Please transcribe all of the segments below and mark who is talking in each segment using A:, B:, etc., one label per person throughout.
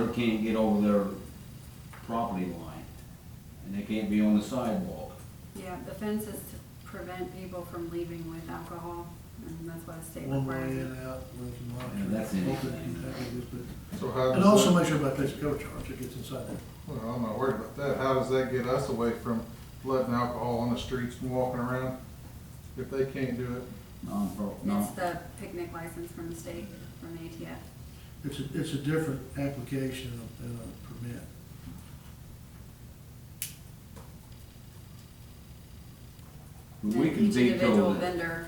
A: can't get over their property line, and they can't be on the sidewalk.
B: Yeah, the fence is to prevent people from leaving with alcohol, and that's why the state
C: one way uh, in
B: requires
C: and
B: it.
C: out, we can
A: Yeah,
C: monitor.
A: that's
C: it.
A: anything.
C: Hopefully it can happen, but-
D: So how
C: And also
D: does that,
C: make sure about this cover charge that gets inside there.
D: well, I'm not worried about that, how does that get us away from letting alcohol on the streets and walking around? If they can't do it,
A: Non-pro,
B: It's
A: no,
B: the picnic license from the state, from the ATF.
C: It's a, it's a different application than a permit.
A: But we
B: And
A: can
B: Each individual
A: veto that.
B: vendor,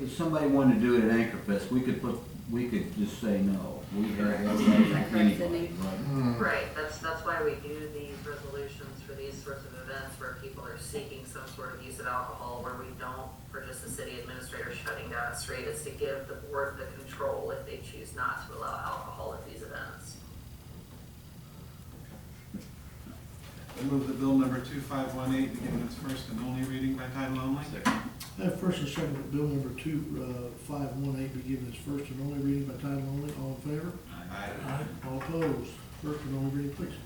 A: If somebody wanted to do it at Anchor Fest, we could put, we could just say no. We have that right
B: Correct,
A: from anybody,
B: Sydney.
A: right?
E: Right, that's, that's why we do these resolutions for these sorts of events where people are seeking some sort of use of alcohol, where we don't, for just the city administrator shutting down a street, is to give the board the control if they choose not to allow alcohol at these events.
F: I move that bill number 2518 be given its first and only reading by title only.
C: Have first and second, that bill number two, uh, five one eight be given its first and only reading by title only, all in favor?
F: Aye.
C: All opposed? First and only reading, please.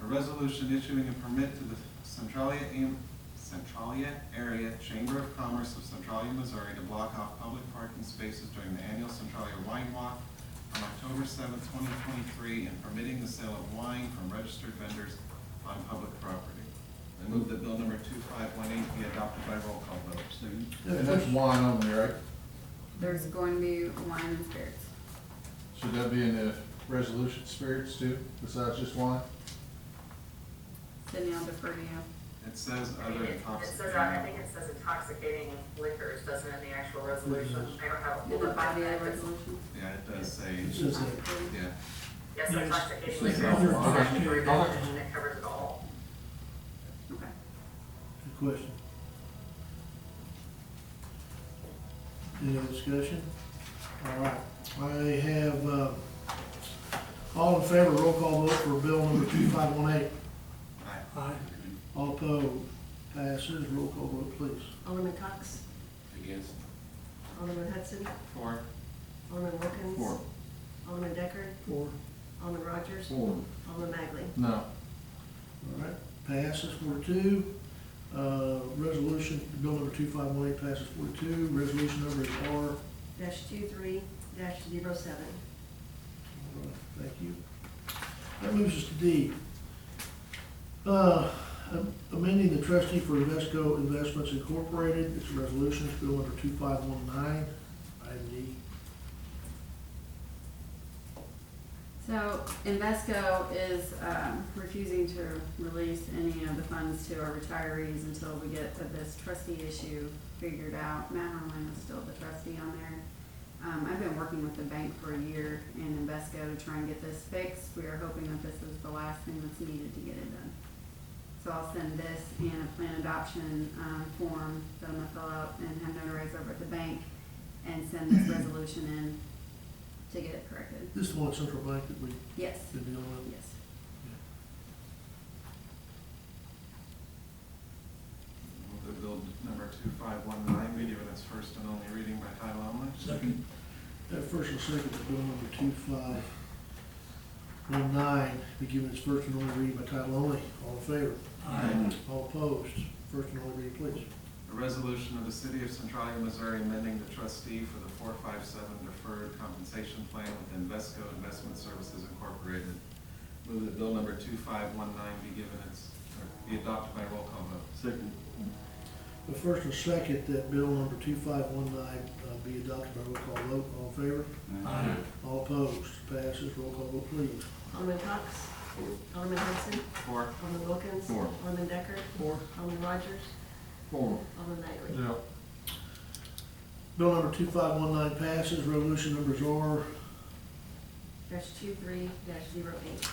F: A resolution issuing a permit to the Centralia, Am- Centralia Area Chamber of Commerce of Centralia, Missouri to block off public parking spaces during the annual Centralia Wine Walk on October seventh, twenty twenty-three, and permitting the sale of wine from registered vendors on public property. I move that bill number 2518 be adopted by roll call vote.
D: and that's wine only, right?
B: there's going to be wine and spirits.
D: Should that be in the resolution spirits too, besides just wine?
B: Sydney, I'll defer to you.
F: It says
E: I mean,
F: other
E: it- It says,
F: intoxicating.
E: I think it says intoxicating liquors, doesn't it, in the actual resolution? I don't have a
B: In
E: whole
B: the
E: lot of
B: body of the
E: that.
B: resolution.
F: Yeah, it does say,
C: It says that.
F: yeah.
E: Yes,
G: Yeah, it's-
E: intoxicating
A: it's
E: liquors,
A: like
E: is
D: alcohol.
E: actually revolving, and it covers it all.
B: Okay.
C: Good question. Any other discussion? All right, I have, uh, all in favor, roll call vote for bill number two five one eight.
F: Aye.
G: Aye.
C: All opposed, passes, roll call vote, please.
H: Alderman Cox,
A: Against.
H: Alderman Hudson,
F: Four.
H: Alderman Wilkins.
A: Four.
H: Alderman Decker,
C: Four.
H: Alderman Rogers,
A: Four.
H: Alderman Magley.
D: No.
C: All right, passes four to two. Uh, resolution, bill number two five one eight passes four to two. Resolution number is R. All
H: Dash two three, dash zero seven.
C: right, Thank you. That moves us to D. Uh, amending the trustee for Invesco Investments Incorporated, it's a resolution, it's bill number two five one nine, item D.
B: So Invesco is um, refusing to release any of the funds to our retirees until we get this trustee issue figured out. Matt Harlan is still the trustee on there. Um, I've been working with the bank for a year and Invesco to try and get this fixed. We are hoping that this is the last thing that's needed to get it done. So I'll send this and a plan adoption um, form that I'm gonna fill out and have notarized over at the bank and send this resolution in to get it corrected.
C: This is the one at Central Bank that we've
B: Yes,
C: been dealing with.
B: yes.
F: Move that bill number 2519 be given its first and only reading by title only.
C: Second. That first and second, that bill number two five one nine, be given its first and only reading by title only. All in favor?
A: Aye.
C: All opposed? First and only reading, please.
F: A resolution of the City of Centralia, Missouri amending the trustee for the 457 deferred compensation plan with Invesco Investment Services Incorporated. Move that bill number 2519 be given its, or be adopted by roll call vote. Second.
C: The first and second, that bill number two five one nine uh, be adopted by roll call vote. All in favor?
G: Aye.
C: All opposed? Passes. Roll call vote, please.
H: Alderman Cox, Alderman Hudson,
F: Four.
H: Alderman Wilkins.
A: Four.
H: Alderman Decker,
D: Four.
H: Alderman Rogers,
A: Four.
H: Alderman Magley.
D: Yeah.
C: Bill number two five one nine passes. Resolution numbers are
H: Dash two three, dash zero eight.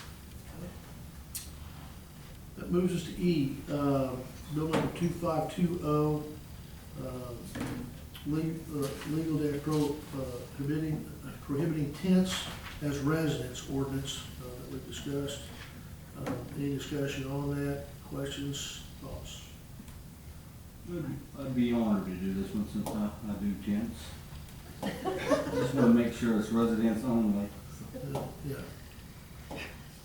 C: That moves us to E, uh, bill number two five two oh, uh, legal day pro- uh, prohibiting, prohibiting tents as residence ordinance uh, that we discussed. Uh, Any discussion on that, questions, thoughts?
A: I'd be honored to do this one since I, I do tents. Just wanna make sure it's residents only.
C: Uh, Yeah,